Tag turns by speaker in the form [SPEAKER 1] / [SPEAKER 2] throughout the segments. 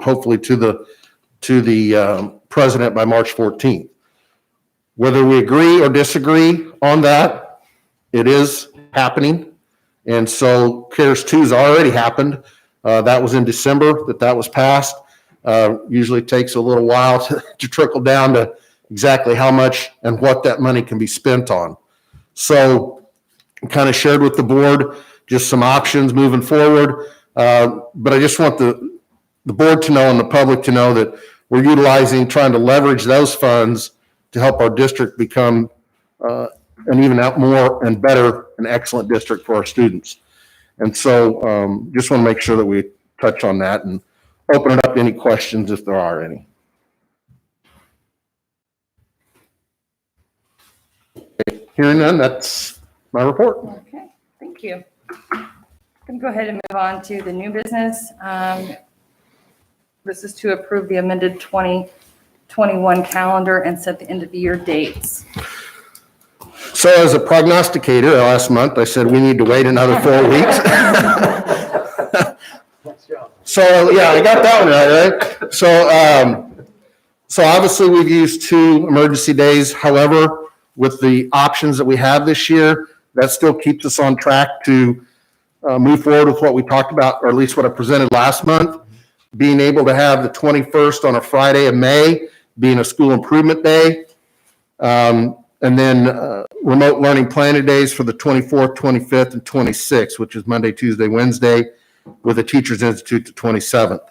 [SPEAKER 1] hopefully to the, to the um, president by March 14th. Whether we agree or disagree on that, it is happening. And so CARES 2's already happened. Uh, That was in December that that was passed. Uh, Usually takes a little while to to trickle down to exactly how much and what that money can be spent on. So kind of shared with the board just some options moving forward. Uh, But I just want the, the board to know and the public to know that we're utilizing, trying to leverage those funds to help our district become uh, an even out more and better and excellent district for our students. And so um, just want to make sure that we touch on that and open it up to any questions if there are any. Hearing none, that's my report.
[SPEAKER 2] Okay, thank you. Going to go ahead and move on to the new business. Um, This is to approve the amended 2021 calendar and set the end of the year dates.
[SPEAKER 1] So as a prognosticator, last month, I said we need to wait another four weeks. So, yeah, I got that one right, right? So, um, so obviously we've used two emergency days. However, with the options that we have this year, that still keeps us on track to, uh, move forward with what we talked about, or at least what I presented last month. Being able to have the 21st on a Friday of May being a school improvement day. Um, and then, uh, remote learning planning days for the 24th, 25th, and 26th, which is Monday, Tuesday, Wednesday, with the Teachers Institute the 27th.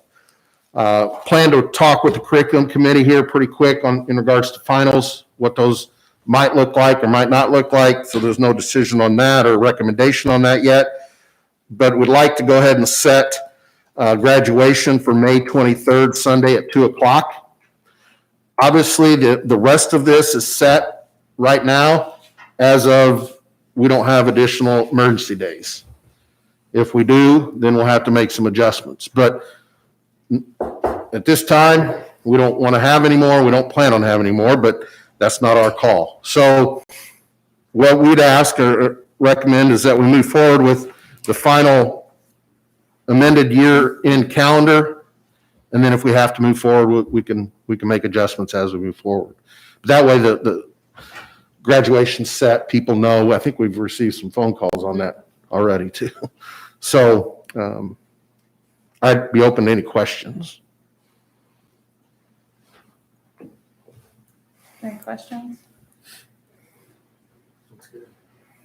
[SPEAKER 1] Uh, Plan to talk with the curriculum committee here pretty quick on, in regards to finals, what those might look like or might not look like, so there's no decision on that or recommendation on that yet. But would like to go ahead and set uh, graduation for May 23rd, Sunday at 2 o'clock. Obviously, the, the rest of this is set right now as of, we don't have additional emergency days. If we do, then we'll have to make some adjustments. But at this time, we don't want to have any more, we don't plan on having any more, but that's not our call. So what we'd ask or recommend is that we move forward with the final amended year-end calendar. And then if we have to move forward, we- we can, we can make adjustments as we move forward. That way, the, the graduation set, people know, I think we've received some phone calls on that already too. So, um, I'd be open to any questions.
[SPEAKER 2] Any questions?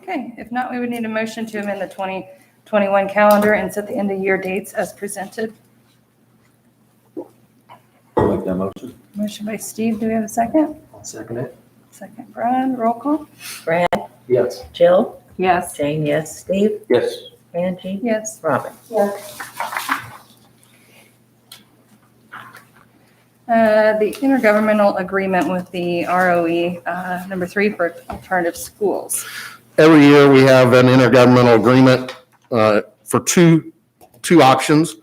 [SPEAKER 2] Okay, if not, we would need a motion to amend the 2021 calendar and set the end of year dates as presented.
[SPEAKER 3] Make that motion.
[SPEAKER 2] Motion by Steve, do we have a second?
[SPEAKER 3] I'll second it.
[SPEAKER 2] Second, Brian, roll call?
[SPEAKER 4] Brad,
[SPEAKER 3] Yes.
[SPEAKER 4] Jill,
[SPEAKER 2] Yes.
[SPEAKER 4] Jane, yes, Steve,
[SPEAKER 3] Yes.
[SPEAKER 4] Angie,
[SPEAKER 2] Yes.
[SPEAKER 4] Robin.
[SPEAKER 2] Uh, The intergovernmental agreement with the ROE, uh, number three for alternative schools.
[SPEAKER 1] Every year, we have an intergovernmental agreement uh, for two, two options.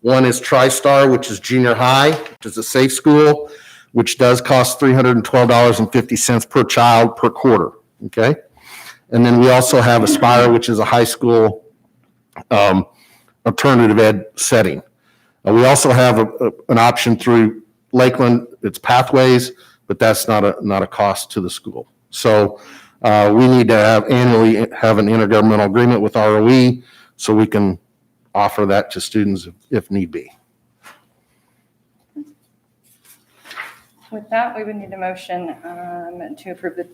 [SPEAKER 1] One is TriStar, which is junior high, which is a safe school, which does cost $312.50 per child per quarter, okay? And then we also have Aspire, which is a high school um, alternative ed setting. And Uh, we also have a- a- an option through Lakeland, it's Pathways, but that's not a, not a cost to the school. So uh, we need to have annually have an intergovernmental agreement with ROE so we can offer that to students if- if need be.
[SPEAKER 2] With that, we would need a motion um, to approve the,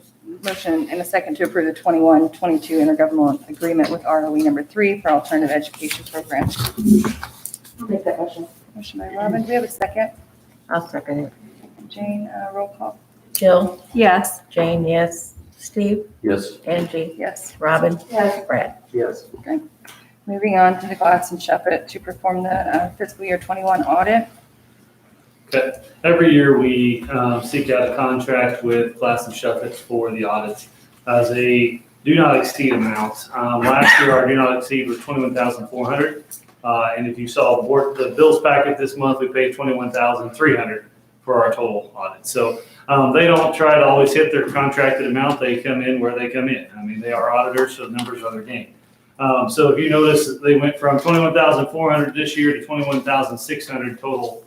[SPEAKER 2] motion and a second to approve the 21-22 intergovernmental agreement with ROE number three for alternative education programs.
[SPEAKER 4] I'll make that motion.
[SPEAKER 2] Motion by Robin, do we have a second?
[SPEAKER 4] I'll second it.
[SPEAKER 2] Jane, uh, roll call.
[SPEAKER 4] Jill,
[SPEAKER 2] Yes.
[SPEAKER 4] Jane, yes, Steve,
[SPEAKER 3] Yes.
[SPEAKER 4] Angie,
[SPEAKER 2] Yes.
[SPEAKER 4] Robin. Yes. Brad.
[SPEAKER 3] Yes.
[SPEAKER 2] Moving on to the Glass and Shepherd to perform the uh, fiscal year 21 audit.
[SPEAKER 5] Every year, we um, seek out a contract with Glass and Shuffett for the audits as a do not exceed amount. Um, Last year, our do not exceed was twenty-one thousand four hundred. Uh, And if you saw board- the bills packet this month, we paid twenty-one thousand three hundred for our total audit. So um, they don't try to always hit their contracted amount. They come in where they come in. I mean, they are auditors, so the numbers are their game. Um, So if you notice, they went from twenty-one thousand four hundred this year to twenty-one thousand six hundred total